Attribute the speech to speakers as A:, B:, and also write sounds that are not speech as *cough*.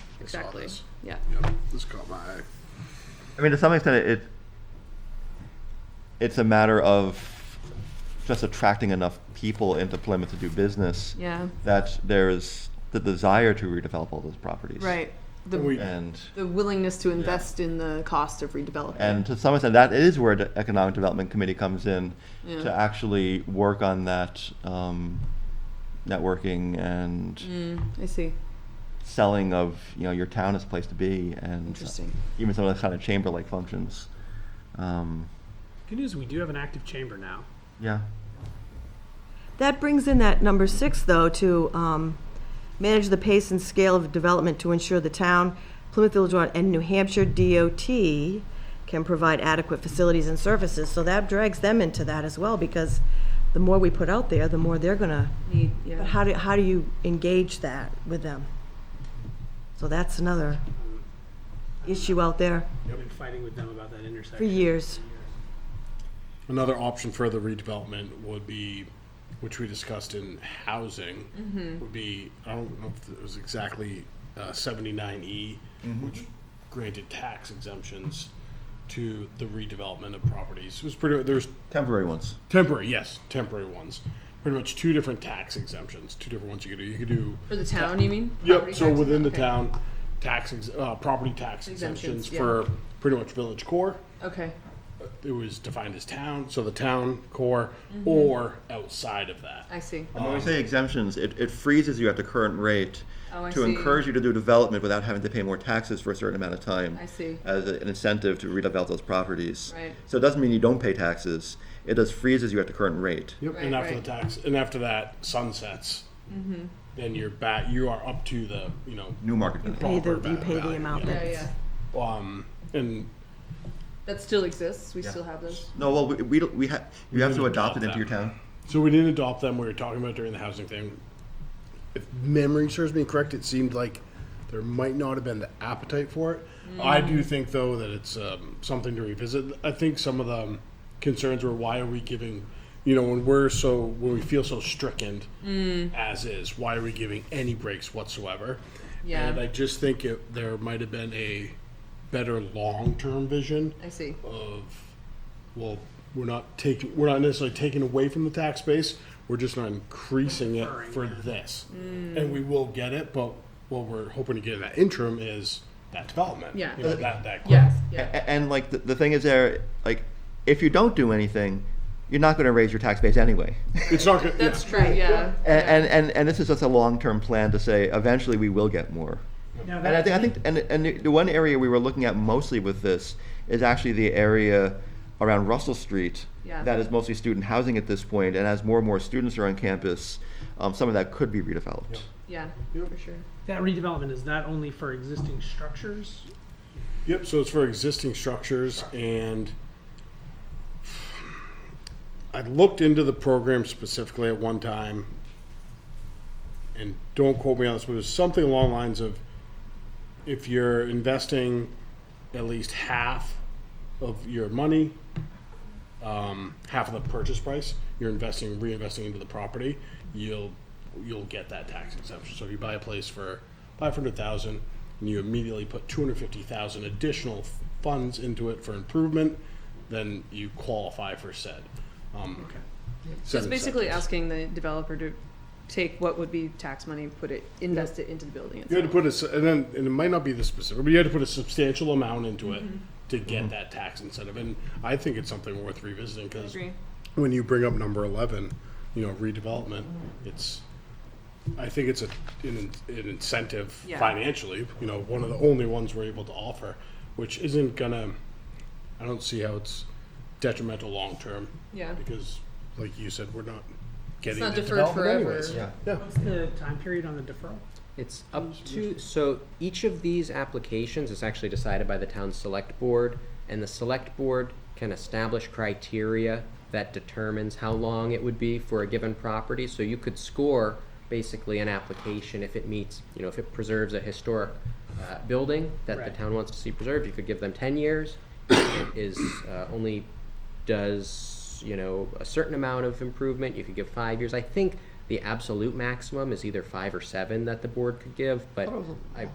A: exactly.
B: this.
A: Yeah.
B: Yeah, this caught my eye.
C: I mean, to some extent, it it's a matter of just attracting enough people into Plymouth to do business
A: Yeah.
C: that there's the desire to redevelop all those properties.
A: Right. The,
B: We-
C: And
A: the willingness to invest in the cost of redevelopment.
C: and to some extent, that is where the Economic Development Committee comes in
A: Yeah.
C: to actually work on that um, networking and
A: I see.
C: selling of you know your town as a place to be and
A: Interesting.
C: even some of those kind of chamber like functions. Um,
D: Good news, we do have an active chamber now.
C: yeah.
E: That brings in that number six, though, to um, manage the pace and scale of development to ensure the town, Plymouth Village Water, and New Hampshire DOT can provide adequate facilities and services. So that drags them into that as well, because the more we put out there, the more they're gonna.
A: Need,
E: But how do, how do you engage that with them? So that's another issue out there
D: I've been fighting with them about that intersection.
E: for years.
B: Another option for the redevelopment would be, which we discussed in housing,
A: Mm-hmm.
B: would be, I don't know if it was exactly uh, 79E, which granted tax exemptions to the redevelopment of properties. It was pretty, there's
C: Temporary ones.
B: temporary, yes, temporary ones. Pretty much two different tax exemptions, two different ones you could do. You could do
A: For the town, you mean?
B: Yep,
A: Property
B: so
A: tax?
B: within the
A: Okay.
B: town, tax, ex- uh, property tax exemptions
A: Exemptions, yeah.
B: for pretty much village core.
A: Okay.
B: It was defined as town, so the town core or outside of that.
A: Mm-hmm. I see.
C: And when we say exemptions, it, it freezes you at the current rate
A: Oh, I
C: to
A: see.
C: encourage you to do development without having to pay more taxes for a certain amount of time.
A: I see.
C: As a- an incentive to redevelop those properties.
A: Right.
C: So it doesn't mean you don't pay taxes. It just freezes you at the current rate.
B: Yep.
A: Right,
B: And after the
A: right. Mm-hmm.
B: tax, and after that sunsets, then you're back, you are up to the, you know,
C: New market. value.
E: Pay the-
B: proper
E: you
B: va-
E: pay the
B: value,
E: amount
B: yeah.
A: Yeah, yeah.
B: Um, and
A: That still exists. We still have those.
C: No, well, we, we, don't- we have, you have to
B: didn't adopt
C: adopt it into
B: that.
C: your town.
B: so we didn't adopt them, we were talking about during the housing thing. If memory serves me correct, it seemed like there might not have been the appetite for it. Mm. I do think though that it's um, something to revisit. I think some of the um, concerns were why are we giving, you know, when we're so when we feel so stricken as is, why are we giving any breaks whatsoever?
A: Yeah.
B: and I just think it, there might have been a better long term vision
A: I see.
B: of well we're not taking we're not necessarily taking away from the tax base we're just not increasing it for this
A: Mm.
B: and we will get it but what we're hoping to get in that interim is that development
A: Yeah.
B: you know, that, that
A: Yes.
B: growth.
A: Yeah.
C: A- And like, the, the thing is there, like, if you don't do anything, you're not gonna raise your tax base
A: *laughs*
C: anyway.
B: it's not gonna, yeah.
A: That's true. Yeah.
C: And, and, and, and this is just a long-term plan to say, eventually we will get more.
D: Now
C: And I
D: that,
C: think, I think, and, and the- the one area we were looking at mostly with this is actually the area around Russell Street.
A: Yeah.
C: That is mostly student housing at this point, and as more and more students are on campus, um, some of that could be redeveloped.
A: Yeah. For sure.
D: that redevelopment is that only for existing structures?
B: Yep, so it's for existing structures and I looked into the program specifically at one time and don't quote me on this, but it was something along the lines of if you're investing at least half of your money, um, half of the purchase price, you're investing reinvesting into the property, you'll you'll get that tax exemption. So if you buy a place for five hundred thousand and you immediately put two hundred fifty thousand additional f- funds into it for improvement, then you qualify for said. Um,
D: Okay.
A: So it's
B: said
A: basically
B: incentives.
A: asking the developer to take what would be tax money, put it, invest it into the building.
B: You had
A: itself.
B: to put a, s- and then, and it might not be the specific, but you had to put a substantial amount into
A: Mm-hmm.
B: it to get that tax incentive. And I think it's something worth revisiting because
A: Agree.
B: when you bring up number eleven, you know, redevelopment,
A: Mm-hmm.
B: it's, I think it's a, an, in- an incentive
A: Yeah.
B: financially, you know, one of the only ones we're able to offer, which isn't gonna, I don't see how it's detrimental long-term.
A: Yeah.
B: Because, like you said, we're not
A: It's
B: getting
A: not
B: the
A: deferred
B: development
A: forever.
B: anyways.
D: What's the time period on the deferral?
F: It's up to, so each of these applications is actually decided by the town select board, and the select board can establish criteria that determines how long it would be for a given property, so you could score basically an application if it meets, you know, if it preserves a historic, uh, building that the
D: Right.
F: town wants to see preserved, you could give them ten years. If it Is, uh, only does, you know, a certain amount of improvement, you could give five years. I think the absolute maximum is either five or seven that the board could give, but I,